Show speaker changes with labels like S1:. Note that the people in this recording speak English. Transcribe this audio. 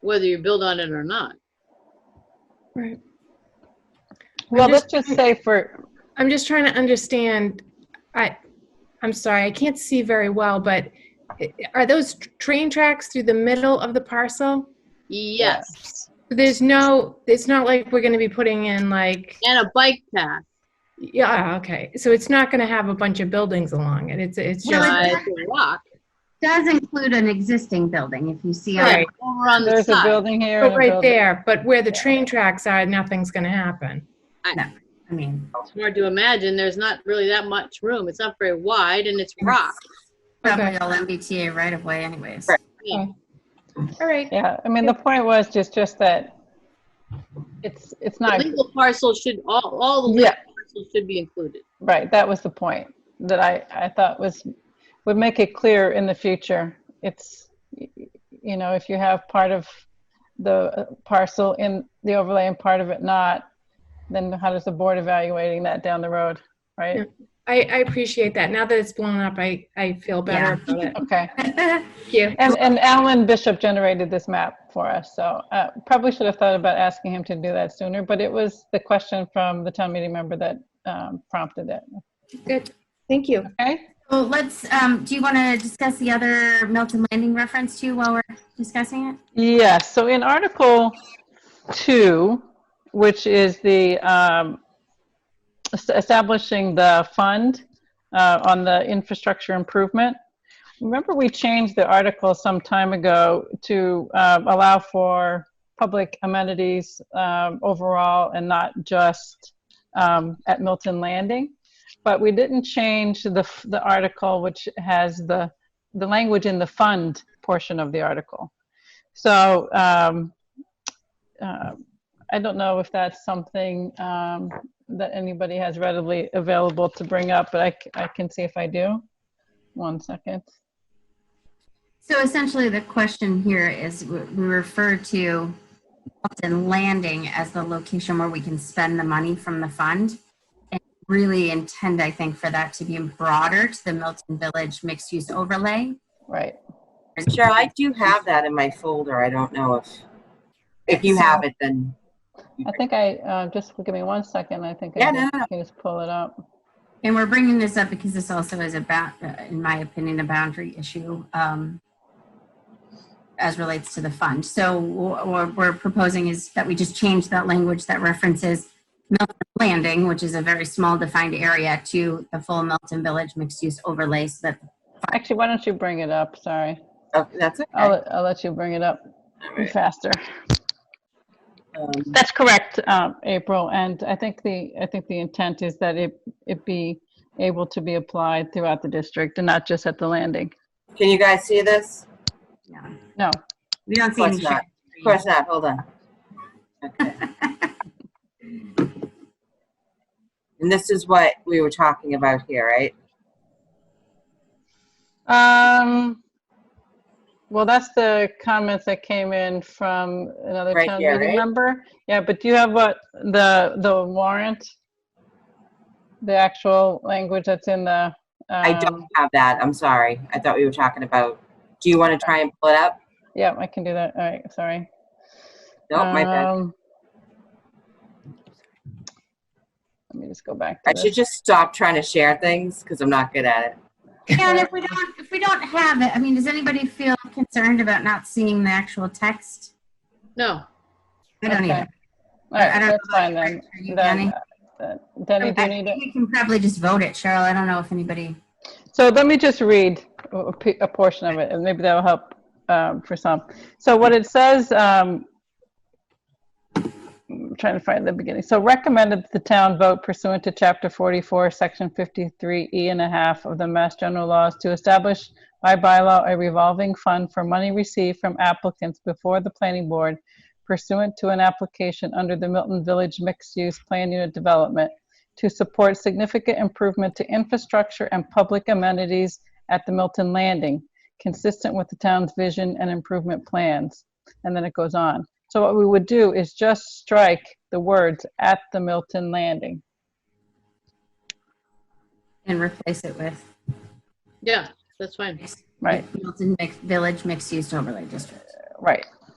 S1: whether you build on it or not.
S2: Right.
S3: Well,
S2: I'm
S3: let's
S2: just-
S3: just say for,
S2: I'm just trying to understand, I, I'm sorry, I can't see very well, but i- are those tr- train tracks through the middle of the parcel?
S1: Yes,
S2: There's no, it's not like we're gonna be putting in like,
S1: and a bike path.
S2: yeah, ah, okay. So it's not gonna have a bunch of buildings along it. It's, it's
S4: Well,
S2: just,
S1: Uh, it's a rock
S4: does include an existing building, if you see. on-
S2: Right.
S1: over on the
S3: there's a
S1: side.
S3: building here.
S2: but
S3: and a
S2: right
S3: building-
S2: there, but where the train tracks are, nothing's gonna happen.
S4: I mean,
S1: It's hard to imagine. There's not really that much room. It's not very wide and it's rock.
S4: probably all MBTA right of way anyways.
S3: Right.
S2: All right,
S3: Yeah, I mean, the point was just, just that it's, it's
S1: The
S3: not,
S1: legal parcel should, all, all the legal
S3: Yeah.
S1: parcels should be included.
S3: right, that was the point that I, I thought was, would make it clear in the future. It's, y- y- you know, if you have part of the uh, parcel in the overlay and part of it not, then how does the board evaluating that down the road, right?
S2: I, I appreciate that. Now that it's blown up, I, I feel better about it.
S3: Okay.
S2: Thank you.
S3: And, and Alan Bishop generated this map for us, so uh, probably should have thought about asking him to do that sooner, but it was the question from the town meeting member that um, prompted it.
S2: Good, thank you.
S3: Okay,
S4: So let's, um, do you want to discuss the other Milton Landing reference too while we're discussing it?
S3: yes, so in Article 2, which is the um, es- establishing the fund uh, on the infrastructure improvement, remember we changed the article some time ago to um, allow for public amenities um, overall and not just um, at Milton Landing. But we didn't change the, the article which has the, the language in the fund portion of the article. So um, uh, I don't know if that's something um, that anybody has readily available to bring up, but I, c- I can see if I do. One second.
S4: So essentially, the question here is w- we refer to Milton Landing as the location where we can spend the money from the fund. And really intend, I think, for that to be broader to the Milton Village mixed use overlay.
S3: Right.
S5: Cheryl, I do have that in my folder. I don't know if, if you have it, then.
S3: I think I, uh, just give me one second. I think I
S5: Yeah,
S3: can-
S5: no, no, no.
S3: can just pull it up.
S4: And we're bringing this up because this also is about, uh, in my opinion, a boundary issue um, as relates to the fund. So wh- what we're proposing is that we just change that language that references Milton Landing, which is a very small defined area, to the full Milton Village mixed-use overlay so that
S3: Actually, why don't you bring it up? Sorry.
S5: Oh, that's okay.
S3: I'll, I'll let you bring it up
S5: All right.
S3: faster.
S5: Um,
S3: That's correct, um, April, and I think the, I think the intent is that it, it be able to be applied throughout the district and not just at the landing.
S5: Can you guys see this?
S4: you know,
S3: No,
S4: we don't
S5: Of
S4: see any.
S5: course
S4: shadow
S5: not. Of course not. Hold on. Okay. And this is what we were talking about here, right?
S3: Um, well, that's the comments that came in from another
S5: Right
S3: town
S5: here,
S3: meeting
S5: right?
S3: member. Yeah, but do you have what, the, the warrant? The actual language that's in the,
S5: I don't
S3: um,
S5: have that. I'm sorry. I thought we were talking about, do you want to try and pull it up?
S3: yeah, I can do that, all right, sorry.
S5: No, my bad.
S3: Um, Let me just go back
S5: I
S3: to
S5: should
S3: this.
S5: just stop trying to share things because I'm not good at it.
S4: Yeah, and if we don't, if we don't have it, I mean, does anybody feel concerned about not seeing the actual text?
S1: No,
S4: I don't
S3: Okay.
S4: either.
S3: All right,
S4: I don't
S3: that's
S4: know
S3: fine
S4: about
S3: then.
S4: you,
S3: Then,
S4: Jenny.
S3: uh, Denny, do
S4: I
S3: you need it?
S4: think we can probably just vote it, Cheryl. I don't know if anybody.
S3: So let me just read a- a p- a portion of it, and maybe that'll help um, for some. So what it says, um, I'm trying to find the beginning. So recommended the town vote pursuant to Chapter 44, Section 53E and a half of the Mass General Laws to establish by bylaw a revolving fund for money received from applicants before the planning board pursuant to an application under the Milton Village Mixed Use Plan Unit Development to support significant improvement to infrastructure and public amenities at the Milton Landing, consistent with the town's vision and improvement plans. And then it goes on. So what we would do is just strike the words at the Milton Landing.
S4: And replace it with
S1: yeah, that's fine.
S3: Right,
S4: Milton Mix- Village Mixed Use Overlay District.
S3: right.